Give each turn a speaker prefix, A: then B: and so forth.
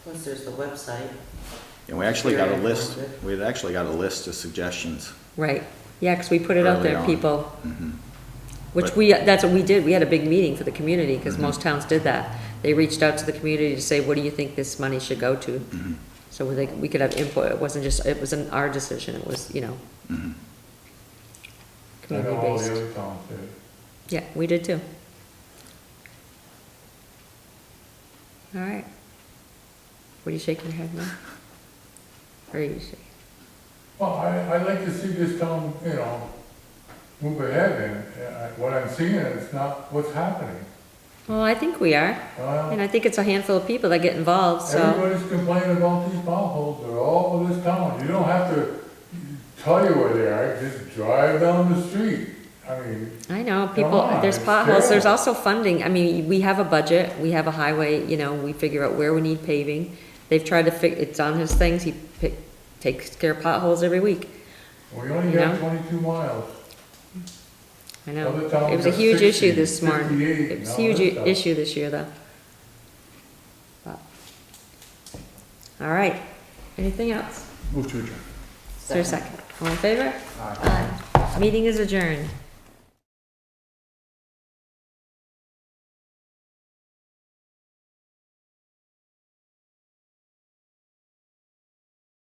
A: Plus, there's the website.
B: And we actually got a
A: Very
B: list,
A: informative.
B: we had actually got a list of suggestions.
C: Right, yeah, because we put it out
B: Early
C: there,
B: on.
C: people,
B: Mhm.
C: which
B: But-
C: we, that's what we did, we had a big meeting for the community, because
B: Mhm.
C: most towns did that. They reached out to the community to say, what do you think this money should go to?
B: Mhm.
C: So we, think- we could have input, it wasn't just, it wasn't our decision, it was, you know,
B: Mhm.
D: I know all the
C: community-based.
D: other towns did.
C: Yeah, we did too. All right. What are you shaking your head now? Or are you shaking?
D: Well, I, I'd like to see this town, you know, move ahead and, uh, I- what I'm seeing is not what's happening.
C: Well, I think we are,
D: Uh,
C: and I think it's a handful of people that get involved, so,
D: Everybody's complaining about these potholes, they're all over this town, you don't have to tell you where they are, just drive down the street. I mean,
C: I know,
D: Come
C: people,
D: on,
C: there's
D: it's
C: potholes, there's
D: terrible.
C: also funding, I mean, we have a budget, we have a highway, you know, we figure out where we need paving. They've tried to fix, it's on his things, he pick, takes care of potholes every week,
D: we only got
C: No.
D: twenty-two miles.
C: I know.
D: Other towns
C: It was a
D: got
C: huge
D: 60,
C: issue this morning,
D: 58,
C: it was a
D: and all
C: huge
D: that stuff.
C: issue this year, though. But- All right, anything else?
D: Move to adjourn.
C: Is there a second? All in favor? Aye. Meeting is adjourned.